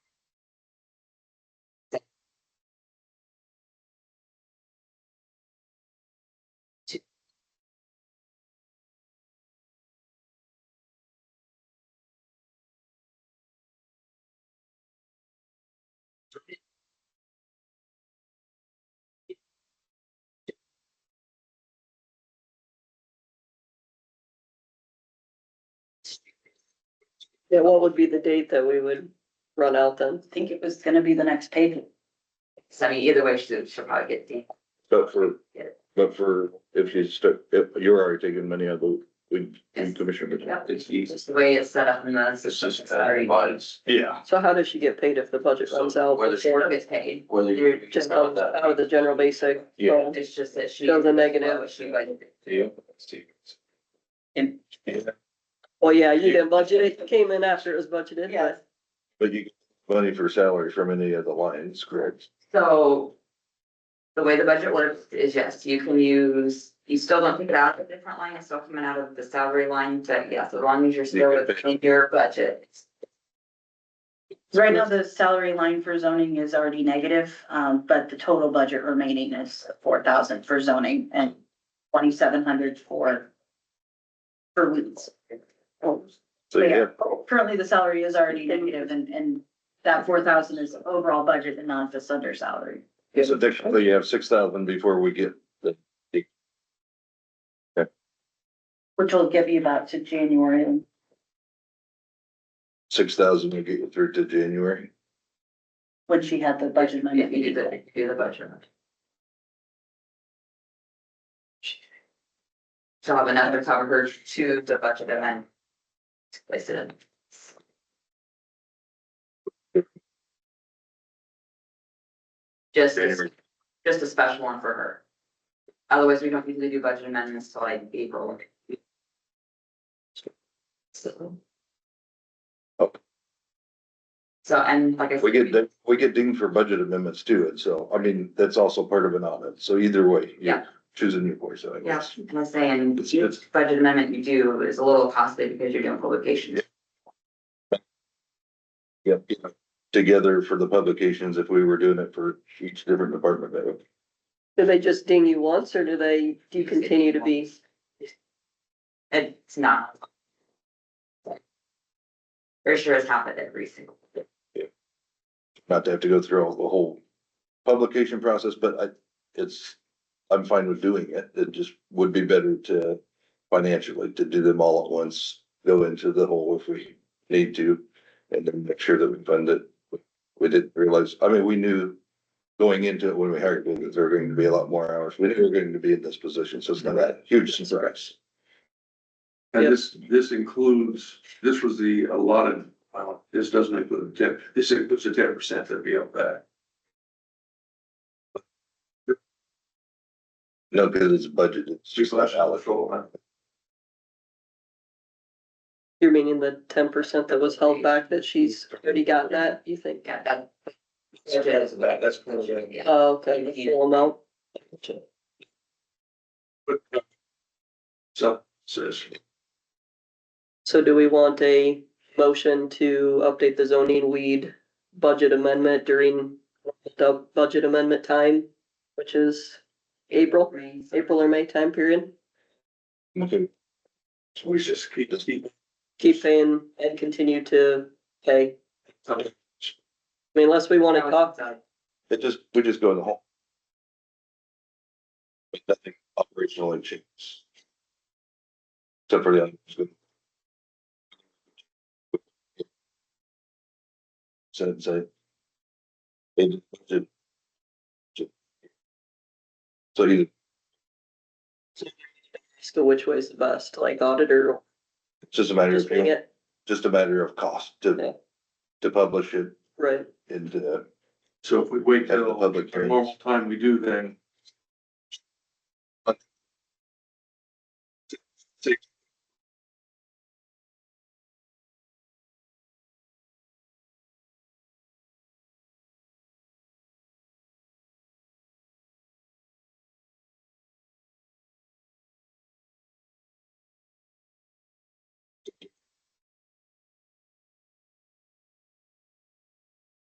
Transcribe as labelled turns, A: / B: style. A: Yeah, what would be the date that we would run out then?
B: think it was gonna be the next page. So I mean, either way, she'll, she'll probably get the,
C: But for, but for, if you stuck, if you're already taking many of the, we, we commissioners.
B: Yep.
D: It's easy.
B: just the way it's set up in the
D: It's
B: system.
D: just, uh, buds.
C: Yeah.
A: So how does she get paid if the budget
D: So
A: runs out?
D: whether she-
B: She
A: before-
B: gets paid.
D: Whether
B: You're
D: you.
A: Just comes out of the general basic.
C: Yeah.
A: so-
B: It's just that she.
A: Shows a negative.
B: what She budgeted.
D: Do you?
B: And,
A: Well, yeah, you didn't budget, it came in after it was budgeted,
B: yeah,
A: but
C: But you, get money for salary from any of the lines, correct?
B: so the way the budget works is yes, you can use, you still don't take it out of a different line, it's still coming out of the salary line, but yes, as long as you're still
C: You can pay.
B: within your budget.
E: Right now, the salary line for zoning is already negative, um, but the total budget remaining is four thousand for zoning and twenty-seven hundred for for weeds.
C: So you
E: Yeah.
C: have,
E: Currently, the salary is already negative and, and that four thousand is overall budget and not just under salary.
C: so technically you have six thousand before we get,
E: Which will give you about to January and
C: six thousand will get you through to January.
E: when she had the budget
B: If you do
E: amendment.
B: the, if you do the budget. She'll have another cover her to the budget and then to place it in. Just,
C: January.
B: just a special one for her. Otherwise, we don't usually do budget amendments till like April. So.
C: Okay.
B: So, and like I said.
C: Oh. We get, ding- we get dinged for budget amendments too, and so, I mean, that's also part of an audit, so either way, you're
B: Yeah.
C: choosing your voice, I
B: Yeah,
C: guess.
B: I'm saying,
C: It's- it's-
B: each budget amendment you do is a little costly because you're doing publications.
C: Yep. Together for the publications, if we were doing it for each different department, that would,
A: do they just ding you once or do they, do you continue to be?
B: It's not. For sure it's happened every single.
C: not to have to go through all the whole publication process, but I, it's, I'm fine with doing it. It just would be better to financially, to do them all at once, go into the hole if we need to, and then make sure that we fund it. We didn't realize, I mean, we knew going into it when we hired, people that there were going to be a lot more hours. We knew we were going to be in this position, so it's not that huge surprise.
A: Yep.
F: And this, this includes, this was the allotted, amount. this doesn't include the tip, this includes the ten percent that we have back.
C: No, because it's budgeted. It's just not allocated.
A: You're meaning the ten percent that was held back that she's already got that, you think?
B: Yeah, that.
D: That's, that's. pretty
B: Yeah.
A: Oh, Okay, the full amount.
F: So, says,
A: So do we want a motion to update the zoning weed budget amendment during the budget amendment time, which is April, April or May time period?
C: Okay.
F: so we just keep, just keep.
A: Keep paying and continue to pay. I
F: Okay.
A: mean, unless we wanna talk,
C: It just, we just go in the hole. But nothing operationally changes. Except for the other. So, so. it- it- it- So you,
A: so which way's the best, like auditor or
C: it's just a matter
A: just bring
C: of,
A: it,
C: just a matter of cost
A: Yeah.
C: to, to publish it
A: right?
C: and, uh,
F: So if we wait
C: Have the
F: till
C: public
F: the normal time we do, then